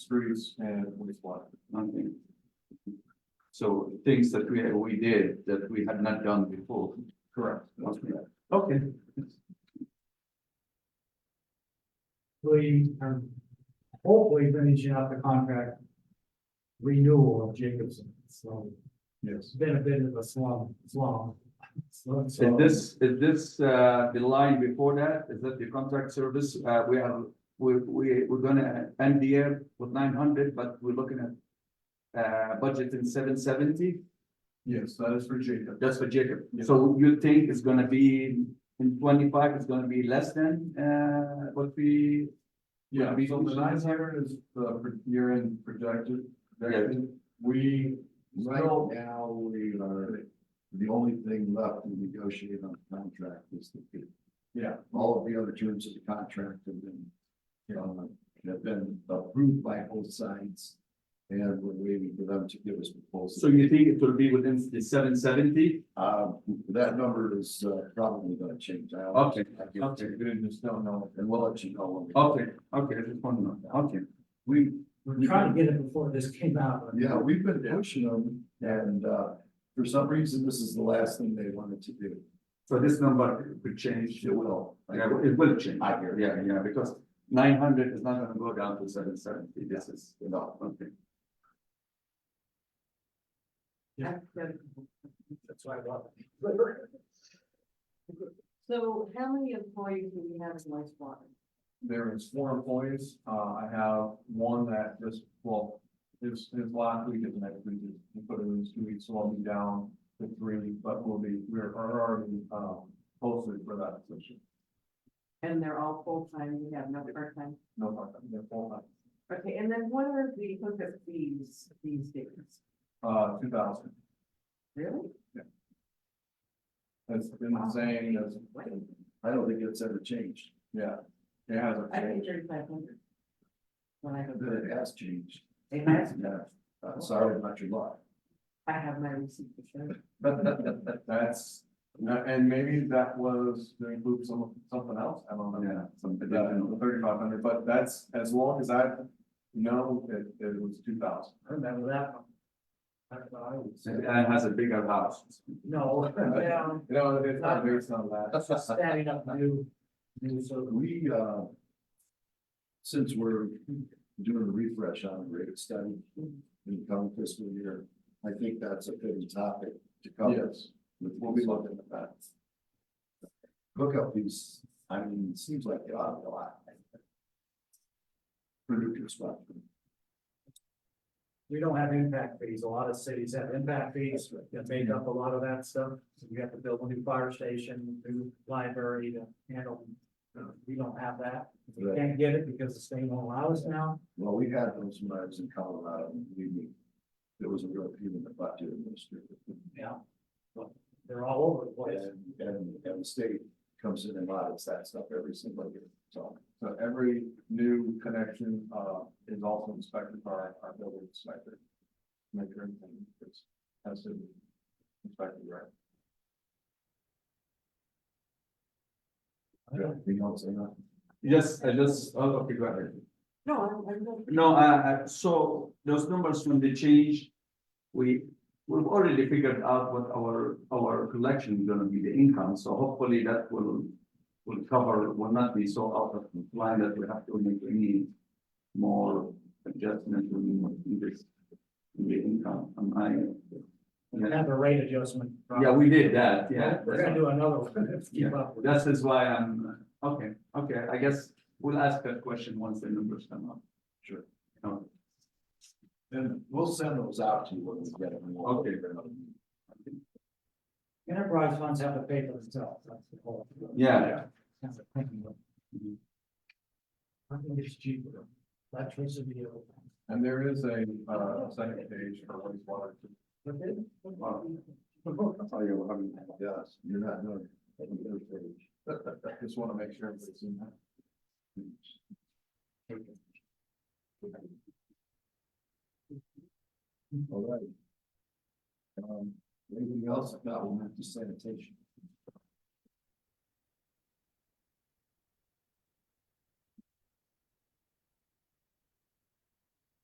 streets and wastewater. nothing. So things that we, we did that we had not done before. Correct. must be- Okay. we are um, hopefully finishing up the contract renewal of Jacobson, so Yes. it's been a bit of a slum, slum. slum, Is slum. this, is this, uh, the line before that? Is that the contract service? Uh, we are, we, we, we're gonna end the year with nine hundred, but we're looking at. Uh, budget in seven seventy, Yes, that is for Jacob. that's for Jacob. So you think it's gonna be in twenty-five, it's gonna be less than, uh, what we. Yeah, Would be so the functional? nine hundred is the pro- year-end projected, projection. we Right still. now, we are, the only thing left to negotiate on the contract is the fee. Yeah. All of the other terms of the contract have been, uh, have been approved by both sides. And we're waiting for them to give us proposals. So you think it will be within the seven seventy? Uh, that number is uh, probably gonna change. I- Okay, I give it okay, to you, We just don't know. And we'll let you know. when we- okay, okay, I just want to know, okay. We, We're trying to get it before this came out. but- yeah, we've been pushing them and, uh, for some reason, this is the last thing they wanted to do. So this number could change, It will. yeah, it will change, I hear you. yeah, yeah, because nine hundred is not gonna go down to seven seventy, this is, you know, okay. That's why I brought it. So how many employees do we have in wastewater? There is four employees, uh, I have one that just, well, his, his last week is next week, he put it in his two weeks, so I'll be down to three, but we'll be, we're already, um, posted for that position. And they're all full-time, we have no part-time. No, part-time, they're full-time, Okay, and then what are the hookup fees these days? uh, two thousand. Really? It's been the same as, What? I don't think it's ever changed. yeah, it hasn't I think changed. thirty-five hundred. When I go to It has changed. It has? Yeah. Uh, sorry about your luck. I have my receipt to show. That's, no, and maybe that was, they include some, something else, I don't know. Yeah, something, Yeah, the thirty-five hundred, but that's as long as I know that it was two thousand. I remember that one. That's what I would say. and has a bigger house. No, well, You know, it's not, it's not that. standing up new, new sort of. We, uh, since we're doing a refresh on the rate study in the coming fiscal year, I think that's a fitting topic to cover. Yes, We'll be looking at that. Hookup fees, I mean, it seems like they ought to go out. Producer spot. We don't have impact fees. A lot of cities have impact fees that make up a lot of that stuff. So you have to build a new fire station, new library to handle. uh, We don't have that. We Right. can't get it because the state won't allow us now. Well, we had those when I was in Colorado, and we, knew there was a real pain in the butt doing this. Yeah. But They're all over the place. And, and, and the state comes in and audits that stuff every single year, so. so every new connection, uh, is also inspected by our building inspector. Make sure everything is, has to be inspected, right? Anything else, I know? Yes, I just, oh, okay, go ahead. No, I'm, I'm not. No, uh, uh, so those numbers, when they change, we, we've already figured out what our, our collection is gonna be, the income, so hopefully that will. Will cover, will not be so out of line that we have to make any more adjustment in this. In the income, am I? We have a rate adjustment. Yeah, we did that, yeah. We're gonna do another one. Let's keep up with it. That is why I'm, uh, okay, okay, I guess we'll ask that question once the numbers come up. Sure. Okay. And we'll send those out to you when we get them. Okay. Enterprise funds have to pay for themselves. That's the whole. Yeah, That's the thinking of it. I think it's cheaper. Electricity. or- And there is a, uh, second page for wastewater. Oh, yeah, we're having- Yes, you're not, no. Just wanna make sure everybody's in that. All right. Um, anything else? If not, we'll move to sanitation.